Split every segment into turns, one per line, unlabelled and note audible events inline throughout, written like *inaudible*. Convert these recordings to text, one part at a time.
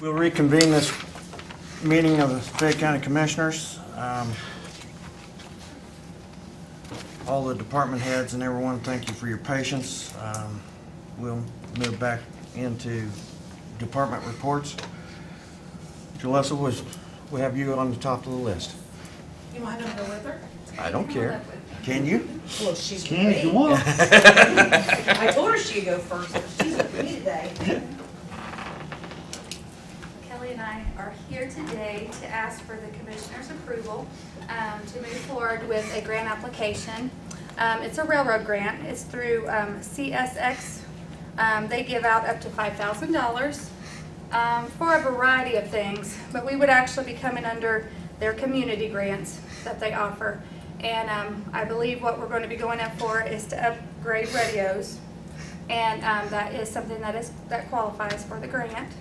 We'll reconvene this meeting of the Fayette County Commissioners. Um, All the department heads and everyone, thank you for your patience. Um, We'll move back into department reports. Jalissa, was, we have you on the top of the list.
You want him to go with her?
I don't care. Can you?
Well, she's with
Can if you
me.
want.
I told her she'd go first, but she's with me today.
Kelly and I are here today to ask for the commissioner's approval um, to move forward with a grant application. Um, It's a railroad grant. It's through um, CSX. Um, They give out up to $5,000 um, for a variety of things, but we would actually be coming under their community grants that they offer. And um, I believe what we're going to be going up for is to upgrade radios. And um, that is something that is, that qualifies for the grant.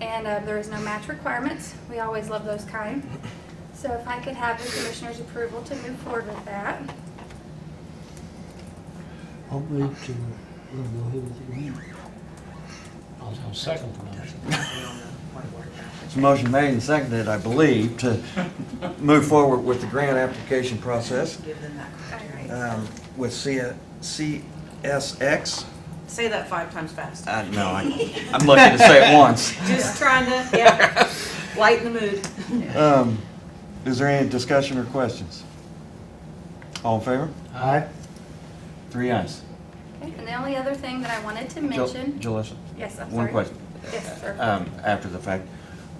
And uh, there is no match requirements. We always love those kind. So if I could have the commissioner's approval to move forward with that.
I'll move to, we'll go ahead with the grant.
I'll I'll second the motion.
It's a motion made and seconded, I believe, to move forward with the grant application process
Give them that.
Alright.
um, with C- CSX.
Say that five times fast.
I, Uh, no, I, I'm lucky to say it *laughs* once.
Just trying to, *laughs* yeah, lighten the mood.
Um, is there any discussion or questions? All in favor?
Aye.
Three ayes.
Okay, And the only other thing that I wanted to
Jul-
mention.
Julissa,
Yes, I'm sorry.
one question,
Yes, sir.
um, after the fact.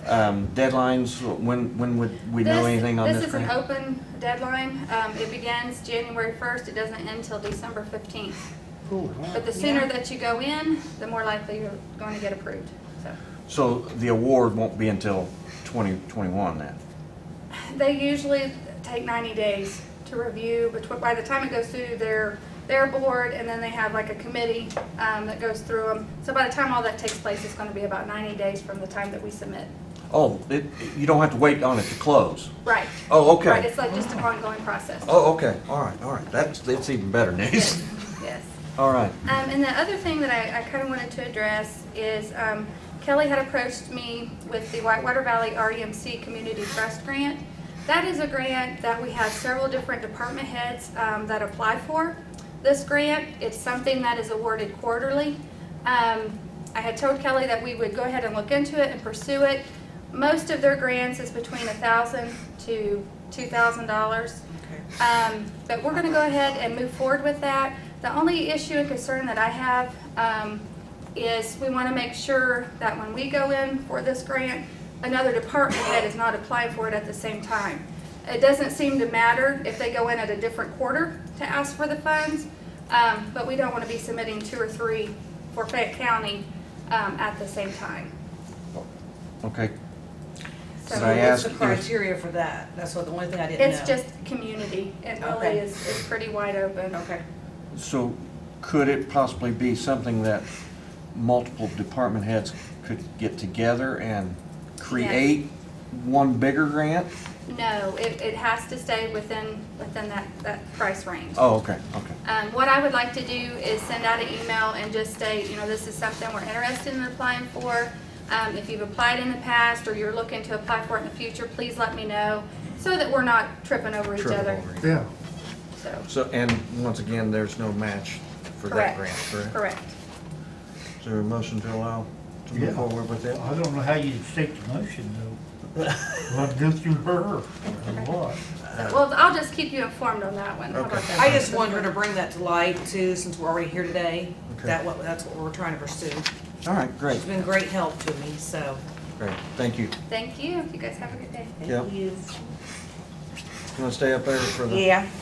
Um, deadlines, when, when would we know
This-
anything on this
This is an
grant?
open deadline. Um, It begins January 1st. It doesn't end till December 15th.
Cool.
But the sooner
Yeah.
that you go in, the more likely you're going to get approved. So
So the award won't be until twenty twenty-one then?
They usually take 90 days to review, but by the time it goes through their, their board, and then they have like a committee um, that goes through them. So by the time all that takes place, it's going to be about 90 days from the time that we submit.
Oh, it, you don't have to wait on it to close?
Right.
Oh,
Right,
okay.
it's like just an ongoing process.
Oh, okay, all right, all right. That's, that's even better news.
Yes, yes.
*laughs* All right.
Um, and the other thing that I, I kind of wanted to address is um, Kelly had approached me with the Whitewater Valley REMC Community Trust Grant. That is a grant that we have several different department heads um, that apply for. This grant, it's something that is awarded quarterly. Um, I had told Kelly that we would go ahead and look into it and pursue it. Most of their grants is between $1,000 to $2,000. Um, But we're going to go ahead and move forward with that. The only issue and concern that I have um, is we want to make sure that when we go in for this grant, another department head is not applying for it at the same time. It doesn't seem to matter if they go in at a different quarter to ask for the funds, um, but we don't want to be submitting two or three for Fayette County um, at the same time.
Okay,
So
So
I
what's the
ask if-
criteria for that? That's what, the only thing I didn't know.
It's just community. It really
Okay.
is is pretty wide open.
Okay.
so could it possibly be something that multiple department heads could get together and create one bigger grant?
No, it, it has to stay within, within that, that price range.
Oh, okay, okay.
Um, what I would like to do is send out an email and just state, you know, this is something we're interested in applying for. Um, if you've applied in the past or you're looking to apply for it in the future, please let me know so that we're not tripping over each
Triple
other.
over.
Yeah.
So,
So, and once again, there's no match for that
Correct.
grant, correct?
correct.
Is there a motion to allow to
Yeah.
move forward with it?
I don't know how you stick the motion though. Well, go through her or what?
So, Well, I'll just keep you informed on that one. How about
Uh, Okay.
that?
I just wanted her to bring that to light too, since we're already here today.
Okay.
That, what, that's what we're trying to pursue.
All right, great,
She's been great help to me, so.
great, thank you.
Thank you. You guys have a good day.
Yep. You wanna stay up there for the?
Yeah.